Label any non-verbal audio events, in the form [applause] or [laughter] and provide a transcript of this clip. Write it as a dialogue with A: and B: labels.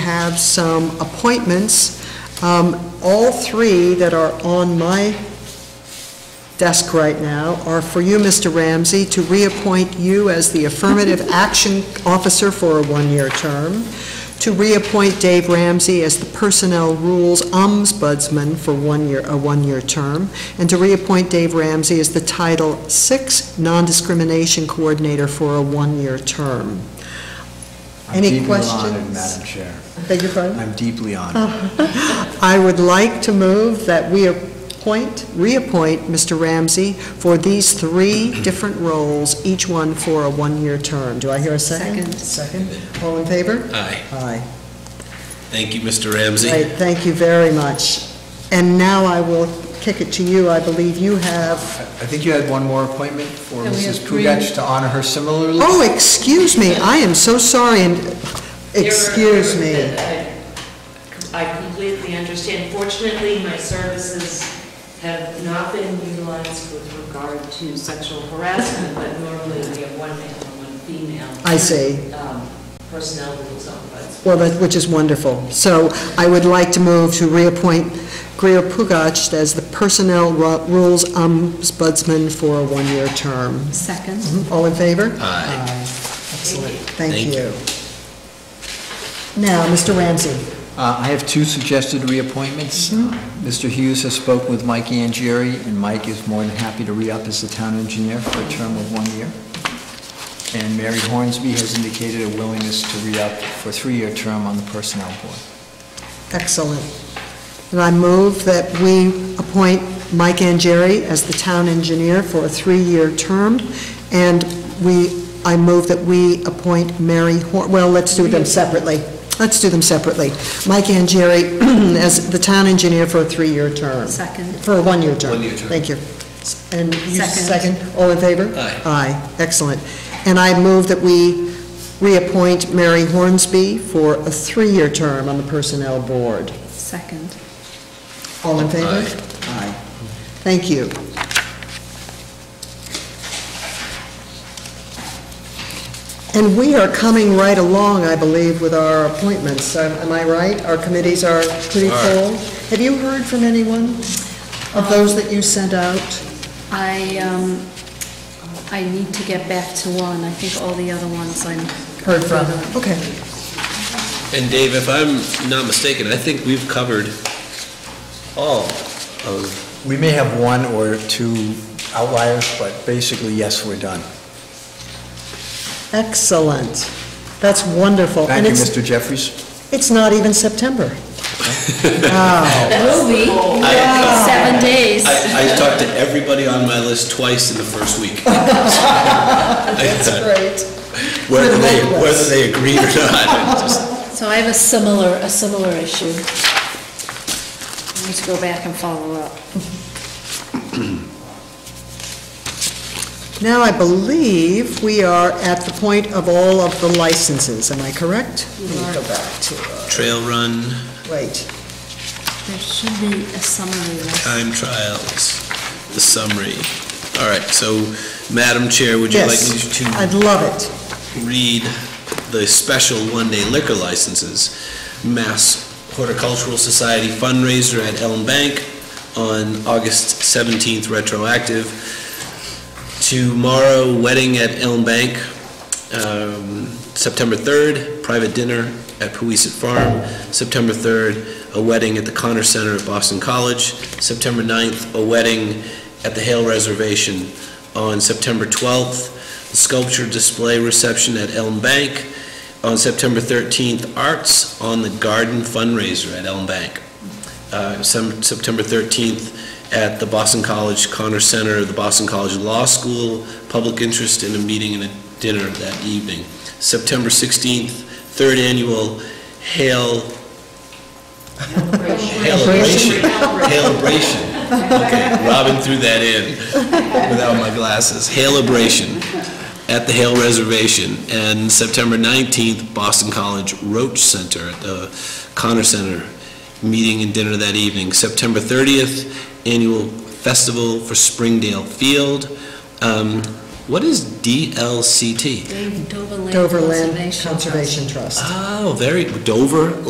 A: have some appointments. Um, All three that are on my desk right now are for you, Mr. Ramsey, to reappoint you as the Affirmative [laughs] Action Officer for a one-year term, to reappoint Dave Ramsey as the Personnel Rules Ombudsman for one year, a one-year term, and to reappoint Dave Ramsey as the Title VI Non-Discrimination Coordinator for a one-year term. Any
B: I'm deeply
A: questions?
B: honored, Madam Chair.
A: Beg your pardon?
B: I'm deeply honored.
A: [laughs] I would like to move that we appoint, reappoint Mr. Ramsey for these three different roles, each one for a one-year term. Do I hear a second? Second. All in favor?
C: Aye.
A: Aye.
C: Thank you, Mr. Ramsey.
A: Great, thank you very much. And now I will kick it to you. I believe you have,
B: I think you had one more appointment for
D: Uh, Yeah, we have
B: Mrs.
D: three.
B: Kugach to honor her similarly.
A: oh, excuse me, I am so sorry, and, excuse me.
D: I completely understand. Fortunately, my services have not been utilized with regard to sexual harassment, but normally we have one male and one female.
A: I see.
D: um, Personnel rules on, but
A: Well, that, which is wonderful. So I would like to move to reappoint Greer Pugac as the Personnel Ru- Rules Ombudsman for a one-year term. Mm-hmm.
E: Second.
A: All in favor?
C: Aye.
A: Excellent. Thank
C: Thank
A: you. Now, Mr. Ramsey.
B: Uh, I have two suggested reappointments. Mr. Hughes has spoken with Mike Jerry, and Mike is more than happy to re-up as the town engineer for a term of one year. And Mary Hornsby has indicated a willingness to re-up for a three-year term on the Personnel Board.
A: Excellent. And I move that we appoint Mike Jerry as the town engineer for a three-year term, and we, I move that we appoint Mary Hor, well, let's do them separately. Let's do them separately. Mike Jerry [clears throat] as the town engineer for a three-year term.
E: Second.
A: For a one-year term.
C: One-year term.
A: Thank you. And you
E: Second.
A: second, all in favor?
C: Aye.
A: Aye, excellent. And I move that we reappoint Mary Hornsby for a three-year term on the Personnel Board.
E: Second.
A: All in favor?
C: Aye.
A: Aye. Thank you. And we are coming right along, I believe, with our appointments. Am am I right? Our committees are pretty
C: All
A: full. Have you heard from anyone of those that you sent out?
E: I, um, I need to get back to one. I think all the other ones I'm.
A: Okay.
C: And Dave, if I'm not mistaken, I think we've covered all of,
B: We may have one or two outliers, but basically, yes, we're done.
A: Excellent. That's wonderful.
B: Thank you,
A: And
B: Mr. Jeffries.
A: it's, it's not even September.
E: Will be. Seven days.
C: I, I talked to everybody on my list twice in the first
A: [laughs]
C: week. uh,
A: Great.
C: Whether they,
A: [laughs]
C: whether they agreed or not, it just-
E: So I have a similar, a similar issue. I need to go back and follow up.
A: Now, I believe we are at the point of all of the licenses. Am I correct? Let me go back to,
C: trail run,
A: wait.
E: There should be a summary list.
C: time trials, the summary. All right, so Madam Chair, would you like me
A: Yes, I'd
C: to
A: love it.
C: read the special one-day liquor licenses? Mass Horticultural Society fundraiser at Elm Bank on August 17th retroactive. Tomorrow, wedding at Elm Bank, um, September 3rd, private dinner at Poisey Farm, September 3rd, a wedding at the Connor Center at Boston College, September 9th, a wedding at the Hale Reservation, on September 12th, sculpture display reception at Elm Bank, on September 13th, arts on the garden fundraiser at Elm Bank, Uh, some- September 13th, at the Boston College Connor Center, the Boston College Law School, public interest in a meeting and a dinner that evening. September 16th, third annual Hail, Haileration. Haileration. Okay, Robin threw that in without my glasses. Haileration at the Hale Reservation. And September 19th, Boston College Roach Center at the Connor Center, meeting and dinner that evening. September 30th, annual festival for Springdale Field. Um, What is DLCT?
E: Dave, Dover Land
A: Dover Land
E: Conservation Trust.
A: Conservation Trust.
C: Oh, very, Dover